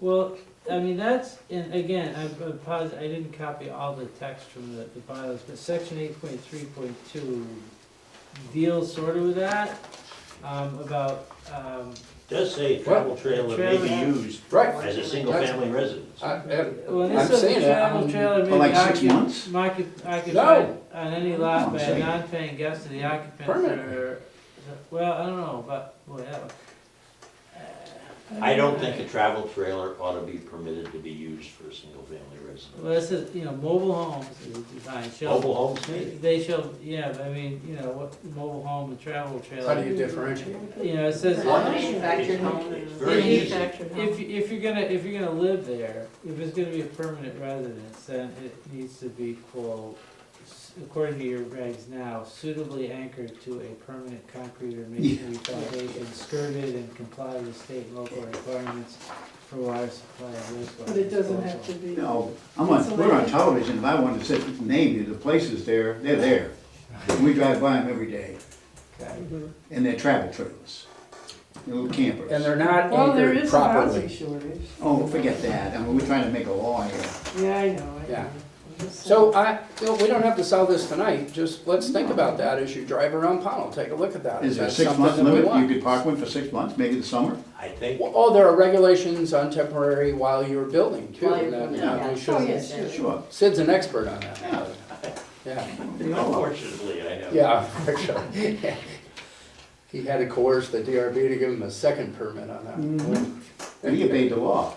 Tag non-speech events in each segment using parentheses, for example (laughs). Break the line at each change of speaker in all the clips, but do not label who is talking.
Well, I mean, that's, and again, I'm I'm posi- I didn't copy all the text from the, the bylaws, but section eight point three point two deals sort of with that, um, about, um,
Does say travel trailer may be
Trailer.
used
Right, Uh,
as a single-family residence.
I, I,
well, and this
I'm
says
saying
the
that,
travel
um,
trailer
for
may
like
be
six months?
occup- occup- occupied on any lot by a non-paying guest of the occupants
Permanent.
or, well, I don't know, but, whatever.
I don't think a travel trailer ought to be permitted to be used for a single-family residence.
Well, this is, you know, mobile homes is designed, shall.
Mobile homes maybe.
They shall, yeah, but I mean, you know, what, mobile home and travel
how do
trailer,
you differentiate?
you know, it says,
Manufactured home.
It's very easy.
if,
Manufactured home.
you- if you're gonna, if you're gonna live there, if it's gonna be a permanent residence, then it needs to be, quote, s- according to your regs now, suitably anchored to a permanent concrete or masonry foundation, skirted and comply with state and local requirements for water supply and wastewater.
But it doesn't have to
disposal.
be.
No, I'm on, we're on television, if I wanted to sit, name you the places there, they're there. We drive by them every day,
Okay.
and they're travel trailers, they're little campers.
And they're not
Well, there
anchored
is a
properly.
housing shortage.
Oh, forget that, I mean, we're trying to make a law here.
Yeah, I know, I
Yeah.
know. I'm just
So uh,
saying.
I, you know, we don't have to sell this tonight, just let's think about that as you drive around Pownell, take a look at that.
Is there a
That's
six
something
month
that we
limit,
want.
you could park one for six months, maybe the summer?
I think,
Well, Oh, there are regulations on temporary while you're building too,
While you're
that
building,
that
yeah.
we
Oh,
shouldn't-
yes, yes.
Sure.
Sid's an expert on
Yeah.
that. Yeah,
unfortunately, I have.
yeah, actually. (laughs) He had to coerce the DRB to give him a second permit on that.
Mm-hmm.
Mhm. We obeyed the law.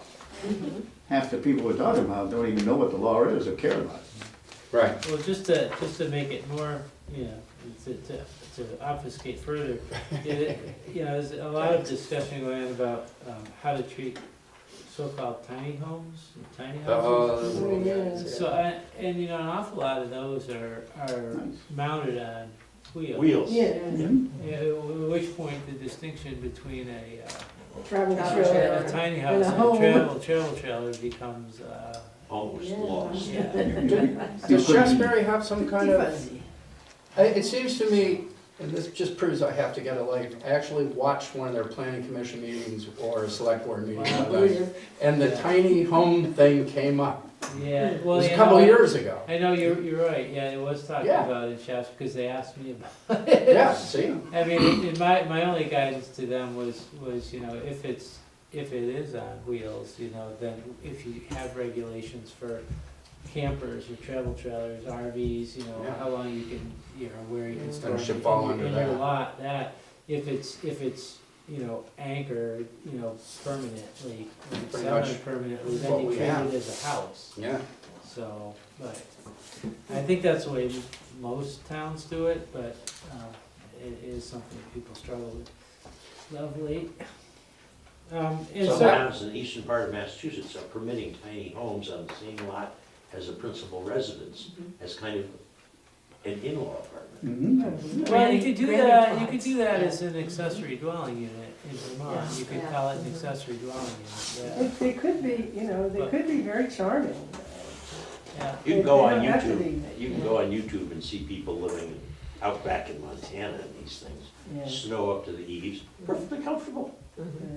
Mm-hmm.
Half the people we're talking about don't even know what the law is or care about it.
Right,
Well, just to, just to make it more, you know, to, to, to obfuscate further, it, you know, there's a lot of discussion going on about, um, how to treat so-called tiny homes, tiny houses.
Oh,
Oh, yeah.
So, I, and you know, an awful lot of those are, are
Nice.
mounted on wheels.
Wheels.
Yeah,
Yeah, At which point the distinction between a, uh,
travel
Travel
trailer.
a tiny house and a
home.
travel, travel trailer becomes, (laughs) uh,
Almost
Yeah.
lost.
yeah.
Does Shasberry have some kind of?
Fuzzy.
I- It seems to me, and this just proves I have to get a life, I actually watched one of their planning commission meetings or a select board meeting one night, and the tiny home thing came up.
Yeah,
It
well,
was a
you
couple
know,
years
(laughs)
ago.
I know, you're, you're right, yeah, it was talked
Yeah.
about in Shasta, because they asked me about,
Yeah, see?
I mean, it- my, my only guidance to them was, was, you know, if it's, if it is on wheels, you know, then if you have regulations for campers or travel trailers, RVs, you know,
Yeah.
how long you can, you know, where you can store.
Then it should
them
fall
in your-
under
In your
that.
lot, that, if it's, if it's, you know, anchored, you know, permanently, when it's
Pretty much
semi-permanently,
what
then you
we
treat it
have.
as a house.
Yeah.
So, but, I think that's the way most towns do it, but, um, it is something that people struggle with. Lovely. Um, and
Some
so,
towns in the eastern part of Massachusetts are permitting tiny homes on the same lot as a principal residence,
Mm-hmm.
as kind of an in-law apartment.
hmm
well, you could do
Granny
that, you could
flats.
do that as an accessory dwelling unit in Vermont,
Yeah.
you could
Yeah.
call it an accessory dwelling unit,
They- They could be, you know, they could be very charming.
yeah,
You can go
They
on
don't have to
YouTube,
be.
you can go on YouTube and see people living out back in Montana and these things.
Yeah.
Snow up to the eaves, perfectly comfortable,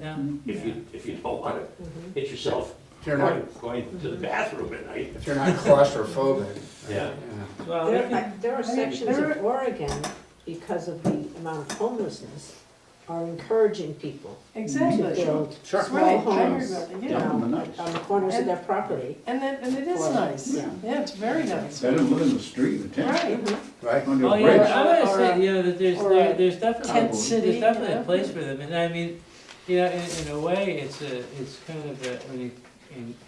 yeah,
if you, if you don't wanna hit yourself
If you're not,
going (laughs) going to the bathroom at night.
if
(laughs)
you're not claustrophobic.
Yeah.
Yeah.
yeah. Well, we
There
can,
are, there are sections of Oregon, because of the amount of homelessness, are encouraging people to
Exactly.
build
Sure.
Right, I
small
heard
homes.
about that,
you know,
yeah.
Yeah, nice.
On the corners of their property.
And then, and it is
Well,
nice.
yeah.
Yeah, it's very nice.
Better than living in the street in a tent,
Right.
Right?
under
oh,
a
yeah,
bridge.
I'm gonna
Or
say,
a-
you know, that there's,
or
there-
a
there's definitely.
tent city,
There's definitely a
yeah.
place for them, and I mean, you know, in, in a way, it's a, it's kind of a, an, an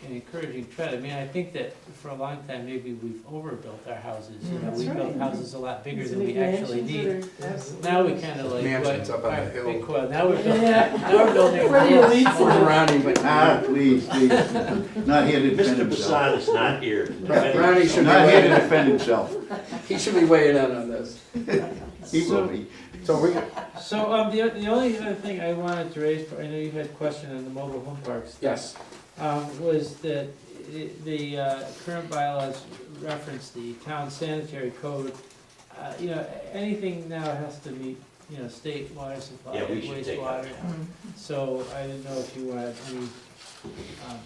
an encouraging trend. I mean, I think that for a long time, maybe we've overbuilt our houses, you know,
Mm, That's
we built
right.
houses a lot bigger
These
than we
big
actually
mansions
need.
that are absolutely-
Now we kinda like.
Mansions
what-
up on a
all right,
hill.
big quad. now
(laughs)
we're building,
Yeah.
now we're building.
(laughs) Where do you leave
lots.
from?
Ronnie, but
Ah, please, please, not here to
Mr.
defend himself.
Basad is not here. to defend
Ronnie
himself.
should be
Not here to
weighing,
defend himself,
he should be weighing in on this.
he will be.
So we,
So, um, the, the only other thing I wanted to raise, I know you had a question on the mobile home parks.
yes,
um, was that i- the uh, current bylaws reference the town sanitary code. Uh, You know, anything now has to meet, you know, state water supply
Yeah, we
and
should take
wastewater.
that.
So I didn't know if you had any um,